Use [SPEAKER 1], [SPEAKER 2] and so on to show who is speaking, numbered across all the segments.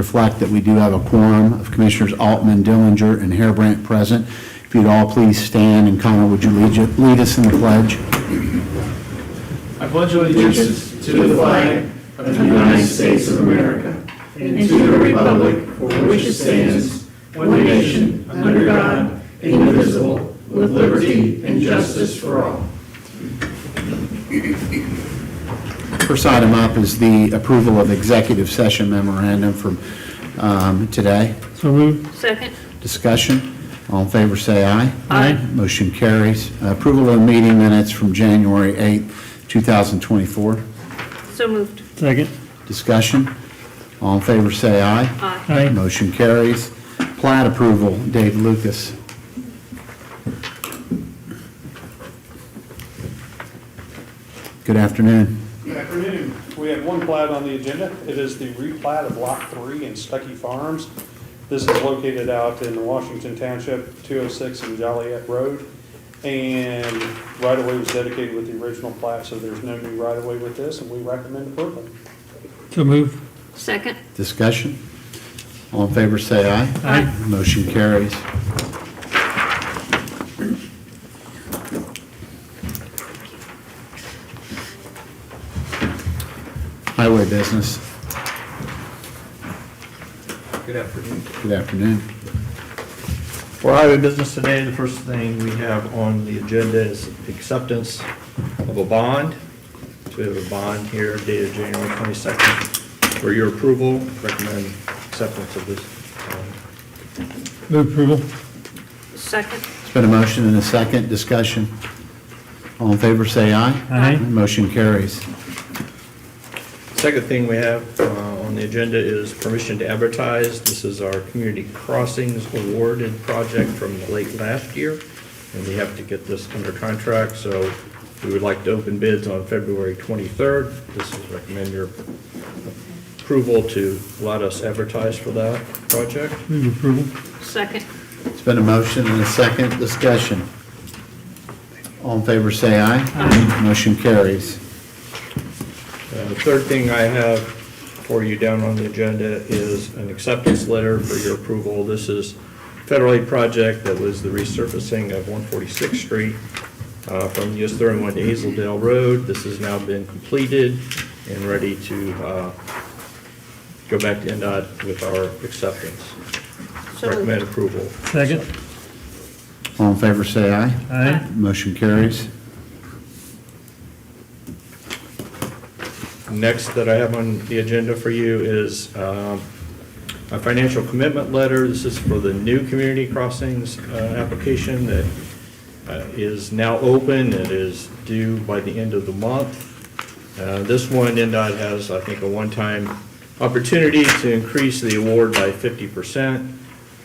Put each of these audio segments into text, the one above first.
[SPEAKER 1] reflect that we do have a quorum of Commissioners Altman, Dillinger, and Harebrant present. If you'd all please stand, and Connor, would you lead lead us in the pledge?
[SPEAKER 2] I pledge allegiance to the flag of the United States of America and to the republic for which it stands, one nation, under God, indivisible, with liberty and justice for all.
[SPEAKER 1] First item up is the approval of executive session memorandum from um, today.
[SPEAKER 3] So moved.
[SPEAKER 4] Second.
[SPEAKER 1] Discussion, all in favor, say aye.
[SPEAKER 4] Aye.
[SPEAKER 1] Motion carries. Approval of meeting minutes from January 8th, 2024.
[SPEAKER 4] So moved.
[SPEAKER 3] Second.
[SPEAKER 1] Discussion, all in favor, say aye.
[SPEAKER 4] Aye.
[SPEAKER 3] Aye.
[SPEAKER 1] Motion carries. Plat approval, Dave Lucas. Good afternoon.
[SPEAKER 5] Good afternoon. We have one plat on the agenda. It is the replat of Lot 3 in Stuckey Farms. This is located out in Washington Township, 206 and Joliet Road. And right-of-way was dedicated with the original plat, so there's no new right-of-way with this, and we recommend approval.
[SPEAKER 3] So moved.
[SPEAKER 4] Second.
[SPEAKER 1] Discussion, all in favor, say aye.
[SPEAKER 3] Aye.
[SPEAKER 1] Motion carries. Highway business. Good afternoon.
[SPEAKER 6] For highway business today, the first thing we have on the agenda is acceptance of a bond. So we have a bond here dated January 22nd for your approval. Recommend acceptance of this. bond.
[SPEAKER 3] Move approval.
[SPEAKER 4] Second.
[SPEAKER 1] It's been a motion and a second discussion. All in favor, say aye.
[SPEAKER 3] Aye.
[SPEAKER 1] Motion carries.
[SPEAKER 6] Second thing we have uh, on the agenda is permission to advertise. This is our community crossings awarded project from late last year, and we have to get this under contract, so we would like to open bids on February 23rd. This is recommend your approval to let us advertise for that project.
[SPEAKER 3] Move approval.
[SPEAKER 4] Second.
[SPEAKER 1] It's been a motion and a second discussion. All in favor, say aye. Aye. Motion carries.
[SPEAKER 6] Uh, The third thing I have for you down on the agenda is an acceptance letter for your approval. This is federal aid project that was the resurfacing of 146th Street uh, from US 31 to Hazeldale Road. This has now been completed and ready to uh, go back to NDOT with our acceptance.
[SPEAKER 4] So moved.
[SPEAKER 6] Recommend approval.
[SPEAKER 3] Second.
[SPEAKER 1] All in favor, say aye.
[SPEAKER 3] Aye.
[SPEAKER 1] Motion carries.
[SPEAKER 6] Next that I have on the agenda for you is um, a financial commitment letter. This is for the new community crossings uh, application that uh, is now open. It is due by the end of the month. Uh, This one, NDOT has, I think, a one-time opportunity to increase the award by 50%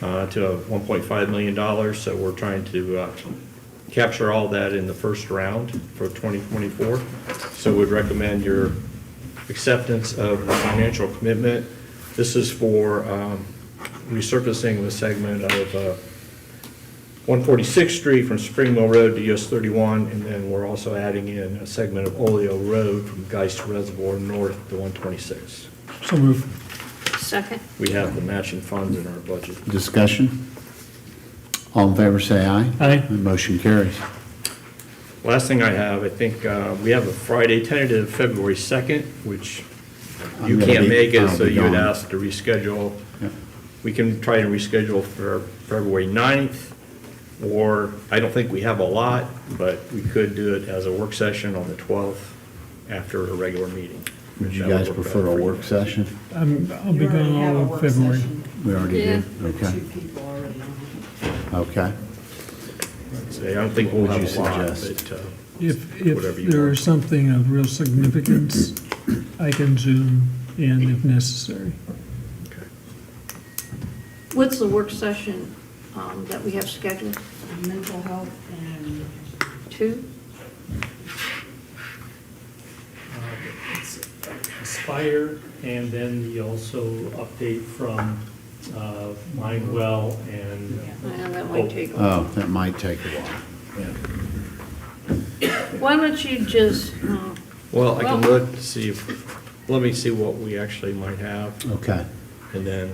[SPEAKER 6] uh, to $1.5 million. So we're trying to uh, capture all that in the first round for 2024. So we'd recommend your acceptance of the financial commitment. This is for um, resurfacing the segment of uh, 146th Street from Spring Mill Road to US 31, and then we're also adding in a segment of Oleo Road from Geist Reservoir North to 126.
[SPEAKER 3] So moved.
[SPEAKER 4] Second.
[SPEAKER 6] We have the matching funds in our budget.
[SPEAKER 1] Discussion? All in favor, say aye.
[SPEAKER 3] Aye.
[SPEAKER 1] Motion carries.
[SPEAKER 6] Last thing I have, I think uh, we have a Friday tentative, February 2nd, which
[SPEAKER 1] I'm
[SPEAKER 6] you
[SPEAKER 1] gonna
[SPEAKER 6] can't
[SPEAKER 1] be-
[SPEAKER 6] make
[SPEAKER 1] I'll
[SPEAKER 6] it,
[SPEAKER 1] be
[SPEAKER 6] so you would
[SPEAKER 1] gone.
[SPEAKER 6] ask to reschedule.
[SPEAKER 1] Yep.
[SPEAKER 6] We can try to reschedule for February 9th, or, I don't think we have a lot, but we could do it as a work session on the 12th after a regular meeting.
[SPEAKER 1] Would you
[SPEAKER 6] That
[SPEAKER 1] guys
[SPEAKER 6] work better
[SPEAKER 1] prefer
[SPEAKER 6] for
[SPEAKER 1] a
[SPEAKER 6] you.
[SPEAKER 1] work session?
[SPEAKER 3] I'm, Um, I'll
[SPEAKER 7] You
[SPEAKER 3] be
[SPEAKER 7] already
[SPEAKER 3] gone
[SPEAKER 7] have a
[SPEAKER 3] all
[SPEAKER 7] work
[SPEAKER 3] of February.
[SPEAKER 7] session
[SPEAKER 1] We already
[SPEAKER 4] Yeah.
[SPEAKER 1] did?
[SPEAKER 7] With
[SPEAKER 1] Okay,
[SPEAKER 7] two people already on it.
[SPEAKER 1] okay.
[SPEAKER 6] So I don't think
[SPEAKER 1] What
[SPEAKER 6] we'll
[SPEAKER 1] would
[SPEAKER 6] have
[SPEAKER 1] you
[SPEAKER 6] a lot,
[SPEAKER 1] suggest?
[SPEAKER 6] but uh,
[SPEAKER 3] If,
[SPEAKER 6] Whatever
[SPEAKER 3] if
[SPEAKER 6] you
[SPEAKER 3] there
[SPEAKER 6] want.
[SPEAKER 3] is something of real significance, I can zoom in if necessary.
[SPEAKER 4] What's the work session um, that we have scheduled?
[SPEAKER 7] And Mental health and
[SPEAKER 4] Two?
[SPEAKER 8] Uh, It's Aspire, and then you also update from uh, Mindwell and
[SPEAKER 4] Well, that might take a while.
[SPEAKER 1] Oh, that might take a while.
[SPEAKER 4] Why don't you just, um,
[SPEAKER 6] Well, I can
[SPEAKER 4] Well-
[SPEAKER 6] look, to see if, let me see what we actually might have.
[SPEAKER 1] Okay.
[SPEAKER 6] and then